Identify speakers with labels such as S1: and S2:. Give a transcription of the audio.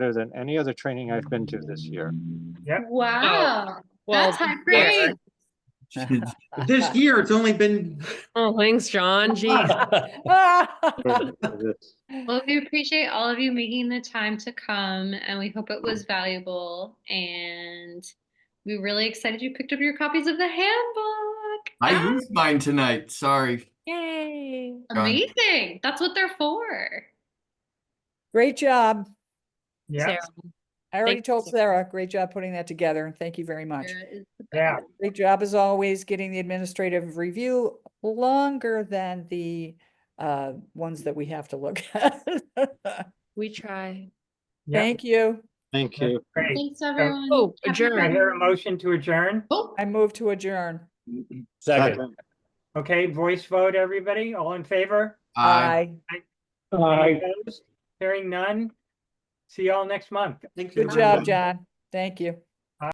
S1: better than any other training I've been to this year.
S2: Wow,
S3: Oh, Well,
S2: that's high
S3: yeah.
S2: praise.
S4: This year, it's only been,
S3: oh, thanks, John. Geez.
S2: Well, we appreciate all of you making the time to come and we hope it was valuable. And we're really excited you picked up your copies of the handbook.
S4: I used mine tonight, sorry.
S3: Yay.
S4: Done.
S2: Amazing. That's what they're for.
S5: Great job.
S6: Yeah,
S3: Sarah.
S5: I already
S3: Thank
S5: told
S3: you.
S5: Sarah, great job putting that together and thank you very much.
S2: Sarah is the
S6: yeah,
S2: best.
S5: Great job as always, getting the administrative review longer than the uh ones that we have to look at.
S3: We try.
S6: yeah.
S5: Thank you.
S1: Thank you.
S6: Great.
S2: Thanks, everyone.
S3: Oh,
S2: Happy
S3: adjourn.
S6: I
S2: Friday.
S6: hear a motion to adjourn.
S2: Oh,
S5: I move to adjourn.
S7: Second.
S6: Okay, voice vote, everybody. All in favor?
S5: Uh,
S4: Aye.
S6: Any opposed? Hearing none. See y'all next month.
S4: Thank you.
S5: Good job, John. Thank you.